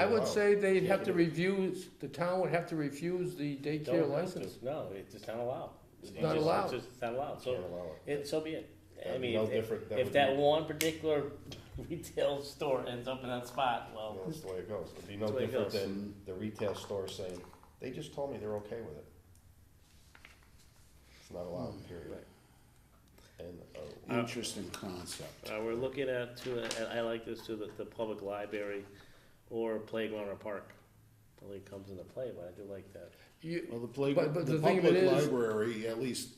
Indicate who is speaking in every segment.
Speaker 1: I would
Speaker 2: Wow.
Speaker 1: say they'd
Speaker 2: Yeah,
Speaker 1: have to
Speaker 2: you-
Speaker 1: refuse, the town would have to refuse the daycare
Speaker 3: Don't have
Speaker 1: license.
Speaker 3: to. No, it's just not allowed.
Speaker 2: It's
Speaker 3: You
Speaker 1: not
Speaker 3: just- it's
Speaker 1: allowed.
Speaker 3: just- It's not allowed,
Speaker 2: Can't
Speaker 3: so,
Speaker 2: allow it.
Speaker 3: it, so be it. I
Speaker 2: That'd be
Speaker 3: mean,
Speaker 2: no
Speaker 3: if-
Speaker 2: different. That
Speaker 3: if
Speaker 2: would
Speaker 3: that
Speaker 2: be-
Speaker 3: one particular retail store ends up in that spot,
Speaker 2: Yeah,
Speaker 3: well,
Speaker 2: That's the way it goes. It'd be no
Speaker 3: That's the way it
Speaker 2: different
Speaker 3: goes.
Speaker 2: than the retail store saying, they just told me they're okay with it. It's not
Speaker 3: Hmm.
Speaker 2: allowed, period. And,
Speaker 4: Uh,
Speaker 2: oh,
Speaker 4: Interesting concept.
Speaker 3: uh, we're looking at to, and I like this too, the, the public library or playground or park. Probably comes into play, but I do like that.
Speaker 1: You,
Speaker 4: Well, the
Speaker 1: But-
Speaker 4: playground,
Speaker 1: but
Speaker 4: the
Speaker 1: the thing of it
Speaker 4: public
Speaker 1: is-
Speaker 4: library, at least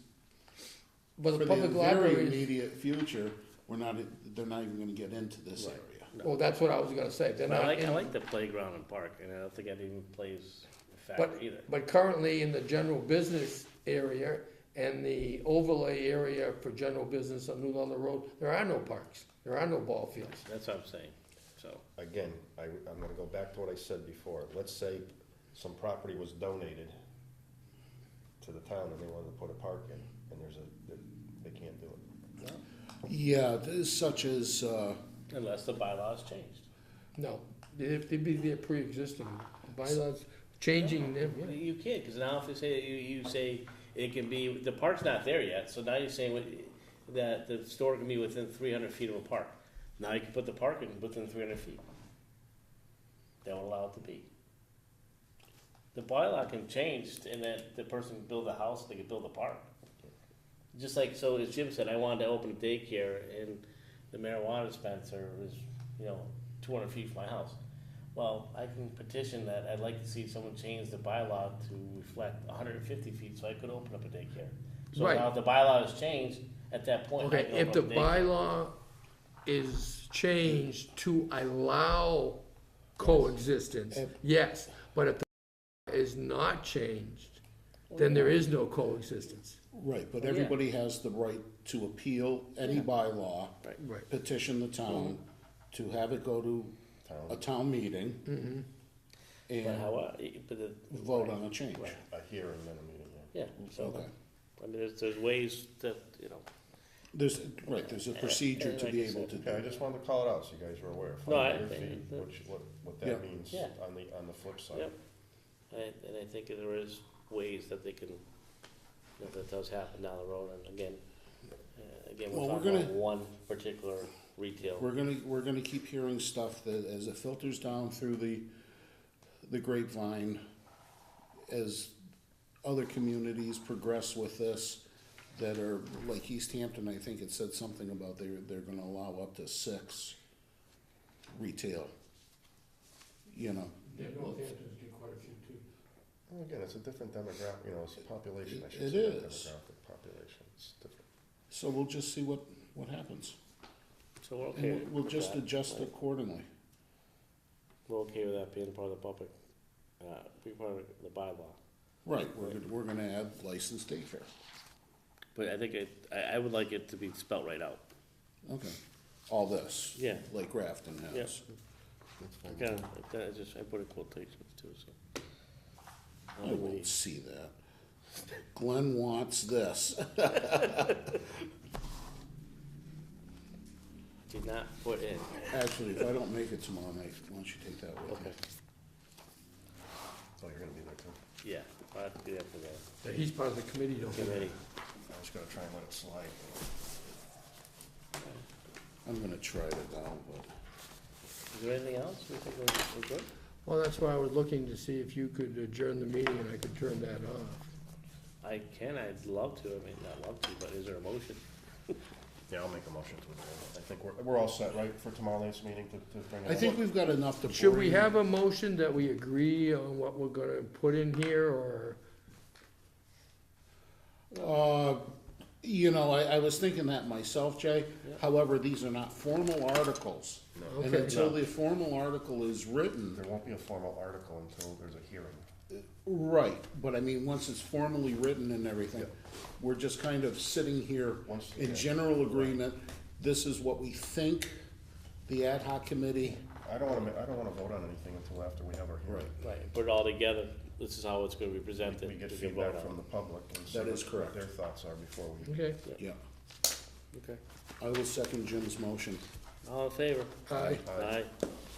Speaker 1: but
Speaker 4: for
Speaker 1: the
Speaker 4: the
Speaker 1: public
Speaker 4: very
Speaker 1: library,
Speaker 4: immediate future, we're not, they're not even gonna get into this
Speaker 3: Right.
Speaker 4: area.
Speaker 1: well, that's what I was gonna say, they're
Speaker 3: But I
Speaker 1: not
Speaker 3: like, I
Speaker 1: in-
Speaker 3: like the playground and park, and I don't think that even plays a factor
Speaker 1: But,
Speaker 3: either.
Speaker 1: but currently in the general business area and the overlay area for general business on New Ludlow Road, there are no parks, there are no ball fields.
Speaker 3: That's what I'm saying, so.
Speaker 2: again, I, I'm gonna go back to what I said before. Let's say some property was donated to the town and they wanted to put a park in, and there's a, they can't do it.
Speaker 4: Yeah, this- such as, uh,
Speaker 3: Unless the bylaws changed.
Speaker 1: No, it'd it'd be their pre-existing bylaws, changing them, yeah.
Speaker 3: You can't, because now if they say, you, you say it can be, the park's not there yet, so now you're saying what- that the store can be within three hundred feet of a park. Now you can put the park in within three hundred feet. They will allow it to be. The bylaw can change in that the person can build a house, they can build a park. Just like, so as Jim said, I wanted to open a daycare and the marijuana dispenser was, you know, two hundred feet from my house. Well, I can petition that, I'd like to see someone change the bylaw to reflect hundred and fifty feet, so I could open up a daycare. So
Speaker 1: Right.
Speaker 3: now if the bylaw is changed, at that point, I
Speaker 1: Okay,
Speaker 3: can
Speaker 1: if
Speaker 3: open
Speaker 1: the
Speaker 3: up a daycare.
Speaker 1: bylaw is changed to allow coexistence, yes, but if the bylaw is not changed, then there is no coexistence.
Speaker 4: right, but
Speaker 1: Oh,
Speaker 3: Yeah.
Speaker 4: everybody has the right to appeal any bylaw,
Speaker 1: Right. Mm-hmm.
Speaker 4: petition the town, to have it go to a town meeting,
Speaker 3: But
Speaker 4: and
Speaker 3: how, uh, but the.
Speaker 4: vote on a change.
Speaker 3: Right.
Speaker 2: A hearing and a meeting, yeah.
Speaker 3: Yeah, so,
Speaker 4: Okay.
Speaker 3: I mean, there's, there's ways that, you know,
Speaker 4: There's, right, there's a procedure to
Speaker 3: Uh, like
Speaker 4: be
Speaker 3: you
Speaker 4: able
Speaker 3: said.
Speaker 4: to do.
Speaker 2: Okay, I just wanted to call it out so you guys were aware.
Speaker 3: No, I-
Speaker 2: 500 feet,
Speaker 3: I-
Speaker 2: Which, what, what
Speaker 4: Yeah.
Speaker 2: that means
Speaker 3: Yeah.
Speaker 2: on the, on the flip side.
Speaker 3: yep. And, and I think there is ways that they can, that that does happen down the road, and again, uh, again, we're
Speaker 4: Well, we're
Speaker 3: talking about
Speaker 4: gonna-
Speaker 3: one particular retail.
Speaker 4: We're gonna, we're gonna keep hearing stuff that as it filters down through the, the grapevine, as other communities progress with this, that are, like East Hampton, I think it said something about they're, they're gonna allow up to six retail. You know,
Speaker 1: Yeah, Northampton's did quite a few too.
Speaker 2: Well, Again, it's a different demographic, you know, it's a population, I
Speaker 4: It
Speaker 2: should say, not
Speaker 4: is.
Speaker 2: demographic, population, it's different.
Speaker 4: so we'll just see what, what happens.
Speaker 3: So we're okay.
Speaker 4: And we'll, we'll
Speaker 3: with
Speaker 4: just
Speaker 3: that,
Speaker 4: adjust
Speaker 3: right?
Speaker 4: accordingly.
Speaker 3: We're okay with that being part of the public, uh, being part of the bylaw.
Speaker 4: Right, we're, gonna- we're gonna add licensed daycare.
Speaker 3: But I think it, I, I would like it to be spelt right out.
Speaker 4: Okay. All this.
Speaker 3: Yeah.
Speaker 4: Like Grafton
Speaker 3: Yeah.
Speaker 4: has.
Speaker 3: Kind of, I just, I put in quotations too, so.
Speaker 4: I won't see that. Glenn wants this.
Speaker 3: Did not put in,
Speaker 4: Actually, if I don't make it tomorrow night, why don't you take that with me?
Speaker 3: okay,
Speaker 2: So Oh, you're gonna be there too.
Speaker 3: yeah, I have to do that for the
Speaker 1: He's part of the committee, don't he?
Speaker 3: committee.
Speaker 2: I was gonna try and let it slide.
Speaker 4: I'm gonna try it out, but
Speaker 3: Is there anything else? We think we're, we're good?
Speaker 1: Well, that's why I was looking to see if you could adjourn the meeting and I could turn that off.
Speaker 3: I can, I'd love to, I mean, not love to, but is there a motion?
Speaker 2: Yeah, I'll make a motion to adjourn. I think we're, we're all set, right, for tomorrow night's meeting to, to bring it
Speaker 4: I
Speaker 2: up?
Speaker 4: think we've got enough to.
Speaker 1: Should we
Speaker 4: bring-
Speaker 1: have a motion that we agree on what we're gonna put in here or?
Speaker 4: Uh, you know, I, I was thinking that myself, Jay.
Speaker 3: Yeah.
Speaker 4: However, these are not formal articles.
Speaker 2: No.
Speaker 4: And
Speaker 1: Okay.
Speaker 4: until the formal article is written,
Speaker 2: There won't be a formal article until there's a hearing.
Speaker 4: right, but I mean, once it's formally written and everything,
Speaker 2: Yeah.
Speaker 4: we're just kind of sitting here
Speaker 2: Once- yeah.
Speaker 4: in general agreement. This is what we think the ad hoc committee
Speaker 2: I don't wanna, ma- I don't wanna vote on anything until after we have our hearing.
Speaker 3: Right, put it all together, this is how it's gonna be presented.
Speaker 2: We get
Speaker 3: we can vote
Speaker 2: feedback
Speaker 3: on
Speaker 2: from the public and see
Speaker 4: That is
Speaker 2: what- what
Speaker 4: correct.
Speaker 2: their thoughts are before we.
Speaker 1: Okay.
Speaker 3: it.
Speaker 4: Yeah,
Speaker 3: Okay,
Speaker 4: I will second Jim's motion.
Speaker 3: all in favor?
Speaker 1: Aye.
Speaker 2: Aye.
Speaker 3: Aye.